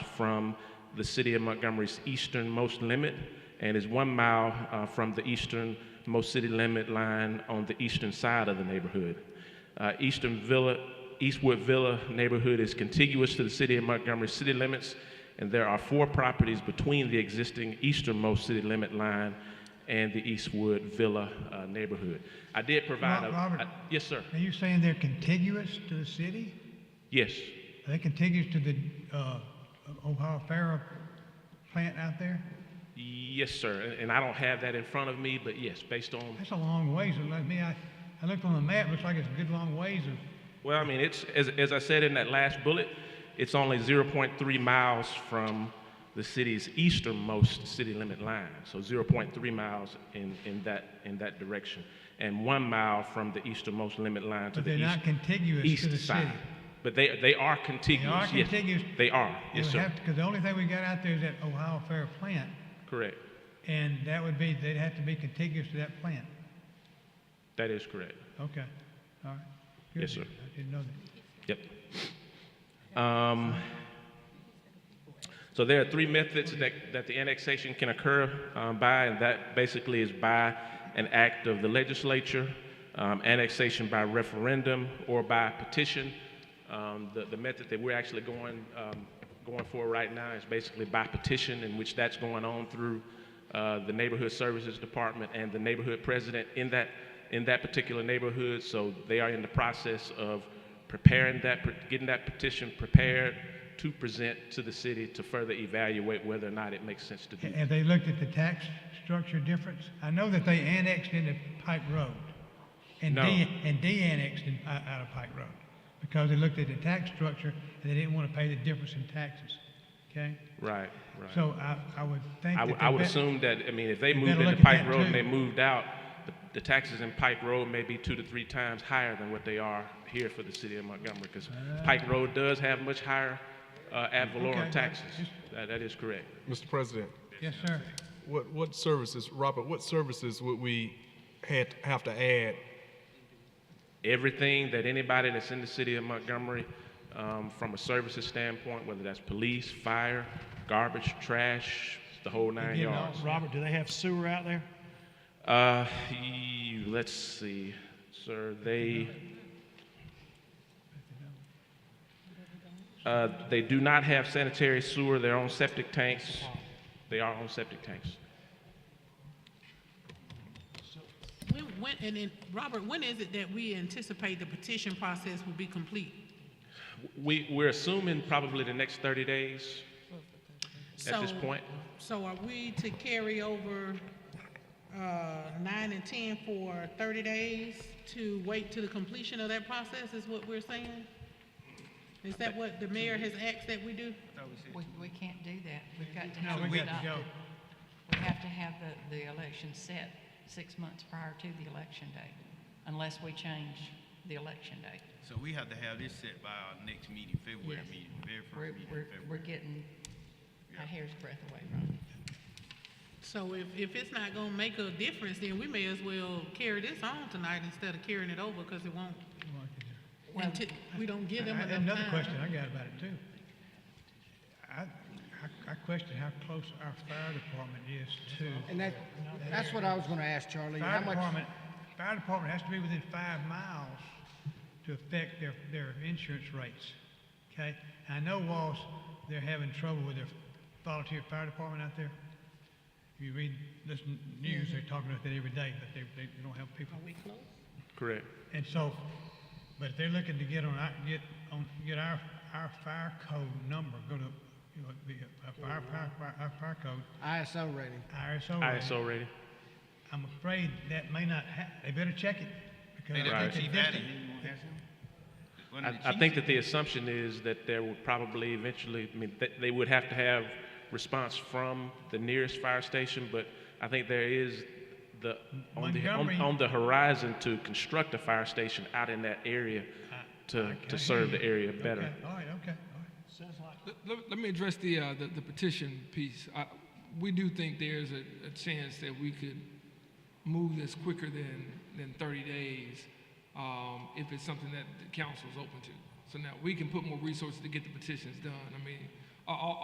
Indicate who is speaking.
Speaker 1: from the city of Montgomery's easternmost limit and is one mile uh, from the easternmost city limit line on the eastern side of the neighborhood. Uh, Eastern Villa, Eastwood Villa neighborhood is contiguous to the city of Montgomery city limits, and there are four properties between the existing easternmost city limit line and the Eastwood Villa uh, neighborhood. I did provide
Speaker 2: Rob-
Speaker 1: a.
Speaker 2: Robert.
Speaker 1: I- yes, sir.
Speaker 2: Are you saying they're contiguous to the city?
Speaker 1: Yes.
Speaker 2: Are they contiguous to the uh, Ohio Farah plant out there?
Speaker 1: Yes, sir. And- And I don't have that in front of me, but yes, based on
Speaker 2: That's a long ways. It looked- me, I, I looked on the map. Looks like it's a good long ways. Of,
Speaker 1: Well, I mean, it's, as, as I said in that last bullet, it's only 0.3 miles from the city's easternmost city limit line. So 0.3 miles in, in, that, in that direction. And one mile from the easternmost limit line to
Speaker 2: but
Speaker 1: the
Speaker 2: they're
Speaker 1: east,
Speaker 2: not contiguous
Speaker 1: east
Speaker 2: to the
Speaker 1: side.
Speaker 2: city.
Speaker 1: But they, they are contiguous. yes.
Speaker 2: contiguous.
Speaker 1: They are, yes, sir.
Speaker 2: Because the only thing we got out there is that Ohio Farah plant,
Speaker 1: correct.
Speaker 2: and that would be they'd have to be contiguous to that plant.
Speaker 1: That is correct.
Speaker 2: Okay. All right. Good.
Speaker 1: Yes, sir.
Speaker 2: I didn't know that.
Speaker 1: Yep. Um, so there are three methods that, that the annexation can occur um, by, and that basically is by an act of the legislature, um, annexation by referendum, or by petition. Um, the, the method that we're actually going, um, going for right now is basically by petition, in which that's going on through uh, the neighborhood services department and the neighborhood president in that in that particular neighborhood. So they are in the process of preparing that, getting that petition prepared to present to the city to further evaluate whether or not it makes sense to do.
Speaker 2: Ha- Have they looked at the tax structure difference? I know that they annexed into Pike Road, and
Speaker 1: No.
Speaker 2: de- and de-annexed in, out out of Pike Road because they looked at the tax structure and they didn't want to pay the difference in taxes. Okay.
Speaker 1: Right, right.
Speaker 2: So I, I would think.
Speaker 1: I
Speaker 2: that
Speaker 1: would,
Speaker 2: they
Speaker 1: I would
Speaker 2: bet-
Speaker 1: assume that, I mean, if they
Speaker 2: they
Speaker 1: moved
Speaker 2: better
Speaker 1: into
Speaker 2: look at
Speaker 1: Pike
Speaker 2: that
Speaker 1: Road and they
Speaker 2: too.
Speaker 1: moved out, the- the taxes in Pike Road may be two to three times higher than what they are here for the city of Montgomery, because Pike Road does have much higher uh, ad
Speaker 2: Ah. Okay,
Speaker 1: valorem taxes.
Speaker 2: just-
Speaker 1: That, that is correct.
Speaker 3: Mr. President,
Speaker 2: Yes, sir.
Speaker 3: what, what services, Robert, what services would we had, have to add?
Speaker 1: everything that anybody that's in the city of Montgomery, um, from a services standpoint, whether that's police, fire, garbage, trash, the whole nine
Speaker 2: did it
Speaker 1: yards.
Speaker 4: Robert, do they have sewer out there?
Speaker 1: Uh, ye- let's see, sir, they. Uh, they do not have sanitary sewer, their own septic tanks. They are on septic tanks.
Speaker 5: When, when, and then, Robert, when is it that we anticipate the petition process will be complete?
Speaker 1: We, we're assuming probably the next 30 days. At this
Speaker 5: So-
Speaker 1: point?
Speaker 5: So are we to carry over, uh, nine and ten for thirty days to wait to the completion of that process is what we're saying? Is that what the mayor has asked that we do?
Speaker 6: We, we can't do that. We've got to
Speaker 2: No,
Speaker 6: have
Speaker 2: we
Speaker 6: it
Speaker 2: got to go.
Speaker 6: adopted. We have to have the, the election set six months prior to the election date, unless we change the election date.
Speaker 7: So we have to have this set by our next meeting, February
Speaker 6: Yes.
Speaker 7: meeting, very
Speaker 6: We're,
Speaker 7: first meeting
Speaker 6: we're,
Speaker 7: in February.
Speaker 6: we're getting a hair's breadth away from it.
Speaker 5: So if, if it's not gonna make a difference, then we may as well carry this on tonight instead of carrying it over, cause it won't,
Speaker 6: Well-
Speaker 5: until, we don't give them
Speaker 2: I- I-
Speaker 5: enough time.
Speaker 2: Another question I got about it too. I, I, I question how close our fire department is to.
Speaker 8: And that, that's what I was gonna ask Charlie, how
Speaker 2: Fire
Speaker 8: much,
Speaker 2: department, fire department has to be within five miles to affect their, their insurance rates, okay? I know Walls, they're having trouble with their volunteer fire department out there. If you read, listen, news,
Speaker 8: Mm-hmm.
Speaker 2: they're talking about that every day, but they, they don't have people.
Speaker 5: Are we close?
Speaker 1: Correct.
Speaker 2: And so, but if they're looking to get on our, get on, get our, our fire code number, go to, you know, the, uh, our fire, fire, our fire code,
Speaker 8: ISO rating?
Speaker 2: ISO.
Speaker 1: ISO rating.
Speaker 2: I'm afraid that may not hap, they better check it, because
Speaker 7: Hey,
Speaker 2: I
Speaker 7: that's the
Speaker 2: think
Speaker 7: chief
Speaker 2: they
Speaker 7: added,
Speaker 2: did.
Speaker 7: you wanna have him? One of
Speaker 1: I,
Speaker 7: the
Speaker 1: I
Speaker 7: chiefs
Speaker 1: think
Speaker 7: said-
Speaker 1: that the assumption is that there would probably eventually, I mean, th- they would have to have response from the nearest fire station, but I think there is the, on the, on,
Speaker 2: Montgomery-
Speaker 1: on the horizon to construct a fire station out in that area to, to serve the area better.
Speaker 2: Okay, all right, okay, all right.
Speaker 9: Let- Let, let me address the, uh, the, the petition piece. I, we do think there's a, a chance that we could move this quicker than, than 30 days um, if it's something that the council is open to. So now we can put more resources to get the petitions done. I mean, all,